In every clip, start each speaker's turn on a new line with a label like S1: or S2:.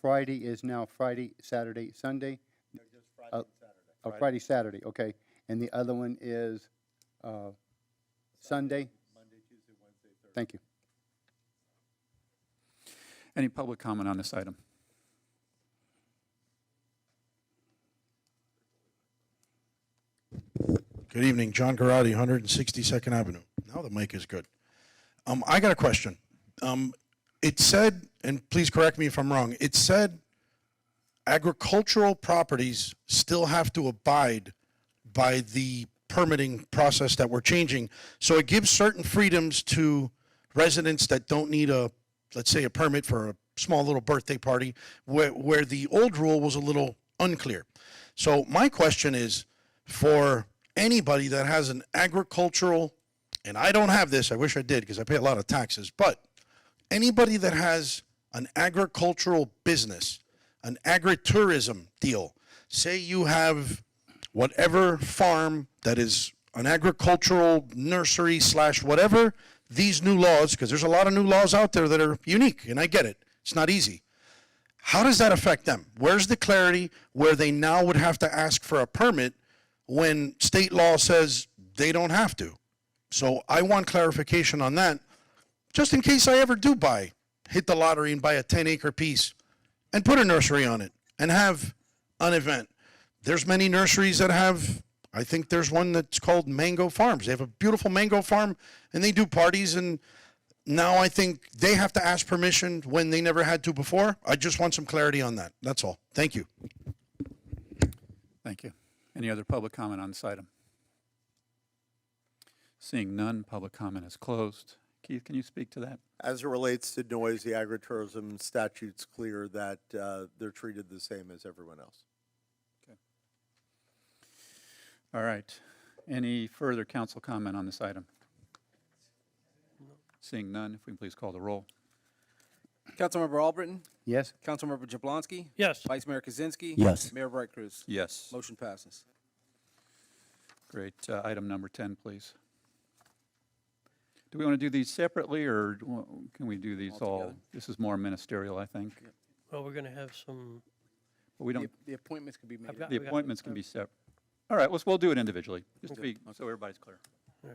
S1: Friday is now Friday, Saturday, Sunday? Uh, Oh, Friday, Saturday, okay. And the other one is uh, Sunday? Monday, Tuesday, Wednesday, Thursday. Thank you.
S2: Any public comment on this item?
S3: Good evening, John Garotti, 162nd Avenue. Now the mic is good. Um, I got a question. Um, it said, and please correct me if I'm wrong, it said agricultural properties still have to abide by the permitting process that we're changing. So it gives certain freedoms to residents that don't need a, let's say, a permit for a small little birthday party, where, where the old rule was a little unclear. So my question is, for anybody that has an agricultural, and I don't have this, I wish I did because I pay a lot of taxes, but anybody that has an agricultural business, an agritourism deal, say you have whatever farm that is an agricultural nursery slash whatever, these new laws, because there's a lot of new laws out there that are unique, and I get it, it's not easy. How does that affect them? Where's the clarity where they now would have to ask for a permit when state law says they don't have to? So I want clarification on that, just in case I ever do buy, hit the lottery and buy a 10 acre piece and put a nursery on it and have an event. There's many nurseries that have, I think there's one that's called Mango Farms. They have a beautiful mango farm and they do parties and now I think they have to ask permission when they never had to before. I just want some clarity on that. That's all. Thank you.
S2: Thank you. Any other public comment on this item? Seeing none, public comment is closed. Keith, can you speak to that?
S4: As it relates to noise, the agritourism statute's clear that uh, they're treated the same as everyone else.
S2: All right. Any further council comment on this item? Seeing none, if we can please call the roll.
S5: Councilmember Albritton?
S1: Yes?
S5: Councilmember Jablonski?
S6: Yes.
S5: Vice Mayor Kaczynski?
S7: Yes.
S5: Mayor Bright Cruz?
S2: Yes.
S5: Motion passes.
S2: Great. Uh, Item number 10, please. Do we want to do these separately, or do wa- can we do these all? This is more ministerial, I think.
S6: Well, we're going to have some,
S2: But we
S8: The
S2: don't,
S8: the appointments could be made.
S6: I've got,
S2: the
S6: we got-
S2: appointments can be separate. All right, let's, we'll do it individually, just to
S8: Okay.
S2: be, so everybody's clear.
S8: Give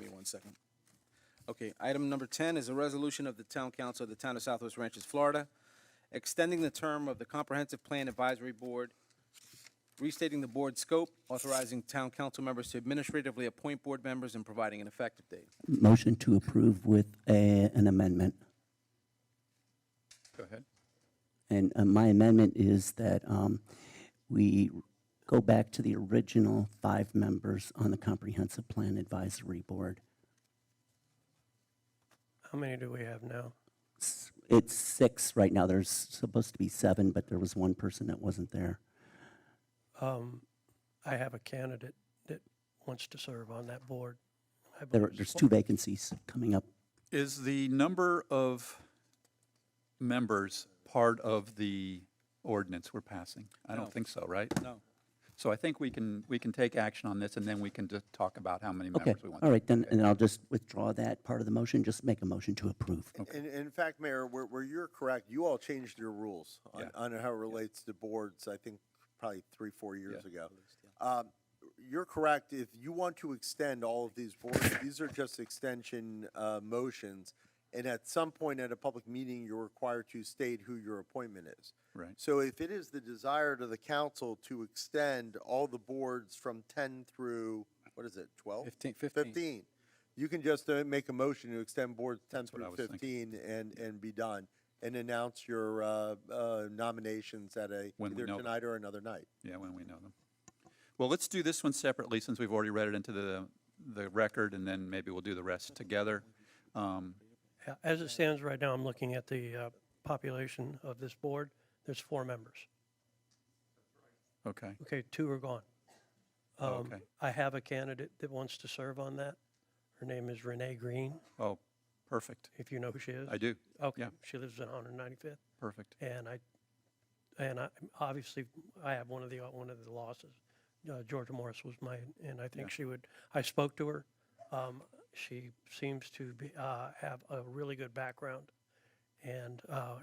S8: me one second.
S5: Okay, item number 10 is a resolution of the Town Council of the Town of Southwest Ranches, Florida, extending the term of the Comprehensive Plan Advisory Board, restating the board's scope, authorizing town council members to administratively appoint board members and providing an effective date.
S7: Motion to approve with a- an amendment.
S2: Go ahead.
S7: And uh, my amendment is that um, we go back to the original five members on the Comprehensive Plan Advisory Board.
S6: how many do we have now?
S7: S- It's six right now. There's supposed to be seven, but there was one person that wasn't there.
S6: Um, I have a candidate that wants to serve on that board. I
S7: There,
S6: believe
S7: there's
S6: so.
S7: two vacancies coming up.
S2: Is the number of members part of the ordinance we're passing? I don't think so, right?
S5: No.
S2: So I think we can, we can take action on this, and then we can just talk about how many
S7: Okay,
S2: members we want.
S7: all right, then, and I'll just withdraw that part of the motion, just make a motion to approve.
S4: And, and in fact, Mayor, where, where you're correct, you all changed your rules on,
S2: Yeah.
S4: on how it relates to boards, I think probably three, four years ago. Um, You're correct, if you want to extend all of these boards, these are just extension uh, motions. And at some point at a public meeting, you're required to state who your appointment is.
S2: Right.
S4: So if it is the desire to the council to extend all the boards from 10 through, what is it, 12?
S8: 15 15.
S4: 15. You can just uh, make a motion to extend boards 10
S2: what I
S4: through
S2: was thinking.
S4: 15 and, and be done. And announce your uh, uh, nominations at a,
S2: When we
S4: either
S2: know.
S4: tonight or another night.
S2: Yeah, when we know them. Well, let's do this one separately, since we've already read it into the, the record, and then maybe we'll do the rest together. Um,
S6: Yeah, As it stands right now, I'm looking at the uh, population of this board. There's four members.
S2: Okay,
S6: Okay, two are gone.
S2: Oh,
S6: Um,
S2: okay.
S6: I have a candidate that wants to serve on that. Her name is Renee Green,
S2: oh, perfect.
S6: if you know who she is.
S2: I do,
S6: Okay,
S2: yeah.
S6: she lives in 195th.
S2: perfect.
S6: And I, and I, obviously, I have one of the, one of the losses. Uh, Georgia Morris was my, and I think she would, I spoke to her. Um, She seems to be, uh, have a really good background and uh,